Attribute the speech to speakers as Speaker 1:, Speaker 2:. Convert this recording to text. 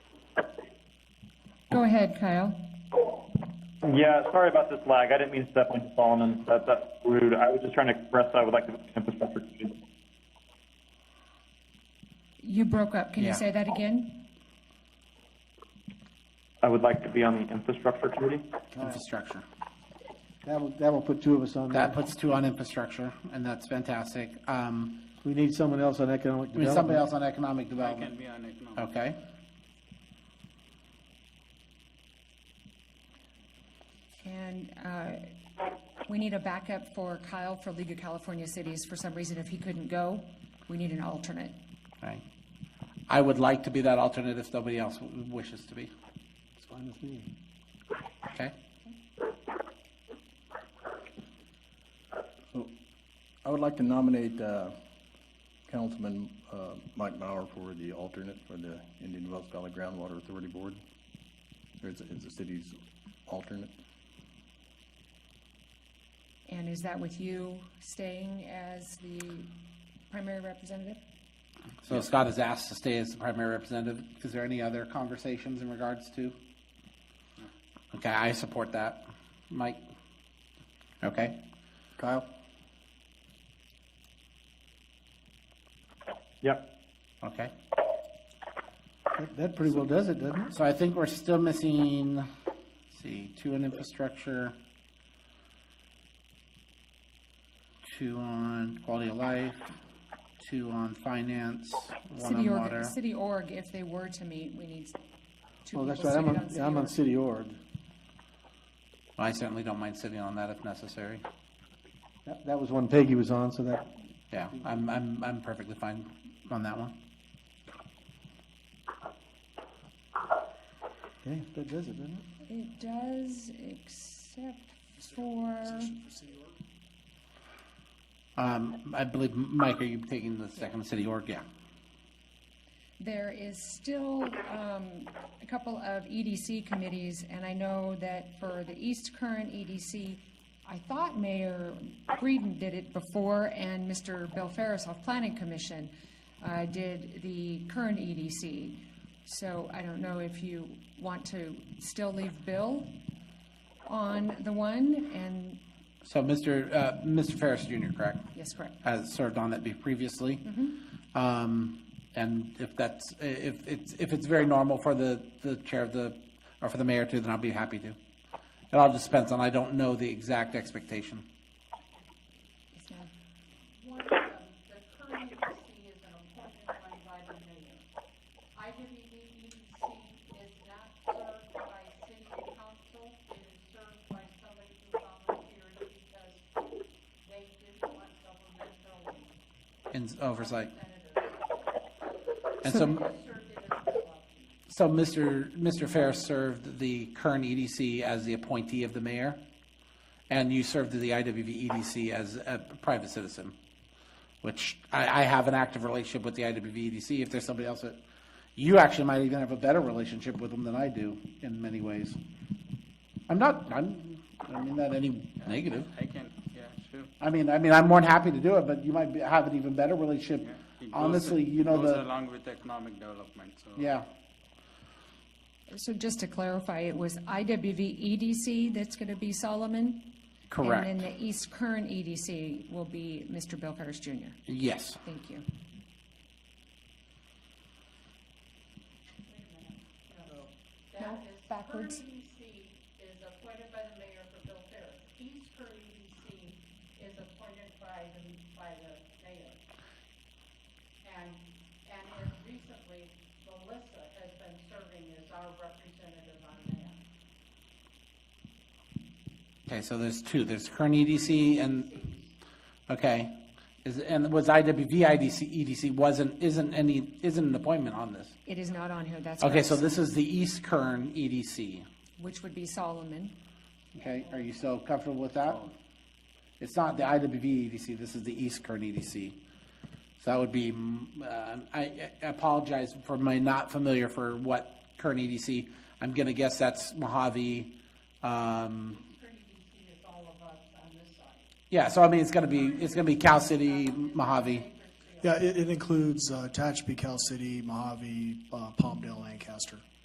Speaker 1: Go ahead, Kyle.
Speaker 2: Yeah, sorry about this lag. I didn't mean to step on Solomon. That, that's rude. I was just trying to express that I would like to infrastructure. committee.
Speaker 1: You broke up. Can you
Speaker 3: Yeah.
Speaker 1: say that again?
Speaker 2: I would like to be on the infrastructure committee.
Speaker 3: Infrastructure.
Speaker 4: That'll, that'll put two of us on
Speaker 3: That
Speaker 4: that.
Speaker 3: puts two on infrastructure, and that's fantastic. Um,
Speaker 4: We need someone else on economic
Speaker 3: I mean, somebody
Speaker 4: development.
Speaker 3: else on economic development. Okay.
Speaker 1: And uh, we need a backup for Kyle for League of California Cities. For some reason, if he couldn't go, we need an alternate.
Speaker 3: Right. I would like to be that alternate if nobody else w- wishes to be.
Speaker 4: It's fine with me.
Speaker 3: Okay?
Speaker 5: I would like to nominate uh, Councilman uh, Mike Mauer for the alternate for the Indian Wells Valley Groundwater Authority Board. Or is it the city's alternate?
Speaker 1: And is that with you staying as the primary representative?
Speaker 3: So Scott is asked to stay as the primary representative. Is there any other conversations in regards to? Okay, I support that. Mike? Okay.
Speaker 5: Kyle?
Speaker 2: Yep.
Speaker 3: Okay.
Speaker 4: That- That pretty well does it, doesn't it?
Speaker 3: So I think we're still missing, let's see, two on infrastructure, two on quality of life, two on finance, one
Speaker 1: City
Speaker 3: on
Speaker 1: org-
Speaker 3: water.
Speaker 1: City org, if they were to meet, we need two people
Speaker 4: Oh, that's right, I'm
Speaker 1: seated
Speaker 4: on,
Speaker 1: on city
Speaker 4: I'm on
Speaker 1: org.
Speaker 4: city org.
Speaker 3: I certainly don't mind sitting on that if necessary.
Speaker 4: That, that was one Peggy was on, so that,
Speaker 3: Yeah, I'm, I'm, I'm perfectly fine on that one.
Speaker 4: okay, that does it, doesn't it?
Speaker 1: It does, except for,
Speaker 3: Um, I believe, Mike, are you taking the second city org? Yeah.
Speaker 1: there is still um, a couple of EDC committees, and I know that for the East Current EDC, I thought Mayor Breeden did it before, and Mr. Bill Ferris off Planning Commission uh, did the current EDC. So I don't know if you want to still leave Bill on the one, and,
Speaker 3: So Mr., uh, Mr. Ferris Jr., correct?
Speaker 1: yes, correct.
Speaker 3: has served on that be- previously. Um, And if that's, if it's, if it's very normal for the, the chair of the, or for the mayor to, then I'll be happy to. It all just depends on, I don't know the exact expectation.
Speaker 1: Yes, ma'am.
Speaker 6: one of them, the current EDC is an appointment run by the mayor. I E believe the EDC is not served by city council, it is served by somebody who volunteered because they didn't want governmental
Speaker 3: in oversight.
Speaker 6: senators.
Speaker 3: And so,
Speaker 6: Served it as a club.
Speaker 3: so Mr. Mr. Ferris served the current EDC as the appointee of the mayor, and you served the IWV EDC E as a private citizen, which I, I have an active relationship with the IWV EDC. E If there's somebody else that, you actually might even have a better relationship with them than I do in many ways. I'm not, I'm, I don't mean that any negative.
Speaker 7: I can, yeah, sure.
Speaker 3: I mean, I mean, I'm more than happy to do it, but you might be- have an even better relationship.
Speaker 7: Yeah. It goes-
Speaker 3: Honestly, you know,
Speaker 7: Goes
Speaker 3: the,
Speaker 7: along with economic development, so.
Speaker 3: yeah.
Speaker 1: So just to clarify, it was IWV EDC E that's going to be Solomon?
Speaker 3: Correct.
Speaker 1: And then the East Current EDC will be Mr. Bill Ferris Jr.
Speaker 3: Yes.
Speaker 1: Thank you. No, backwards.
Speaker 6: Current EDC is appointed by the mayor for Bill Ferris. East Current EDC is appointed by the, by the mayor. And, and as recently, Melissa has been serving as our representative on that.
Speaker 3: Okay, so there's two, there's current EDC and, okay, is, and was IWV IDC, EDC E wasn't, isn't any, isn't an appointment on this?
Speaker 1: It is not on here, that's
Speaker 3: Okay, so
Speaker 1: correct.
Speaker 3: this is the East Kern E EDC.
Speaker 1: Which would be Solomon.
Speaker 3: Okay, are you so comfortable with that? It's not the IWV EDC, E this is the East Kern EDC. So that would be, mm, uh, I I apologize for my not familiar for what Kern EDC, I'm gonna guess that's Mojave, um,
Speaker 6: Current EDC E is all of us on this side.
Speaker 3: yeah, so I mean, it's gonna be, it's gonna be Cal City, Mojave.
Speaker 8: Yeah, it, it includes uh, Tehachapi, Cal City, Mojave, uh, Palmdale, Lancaster.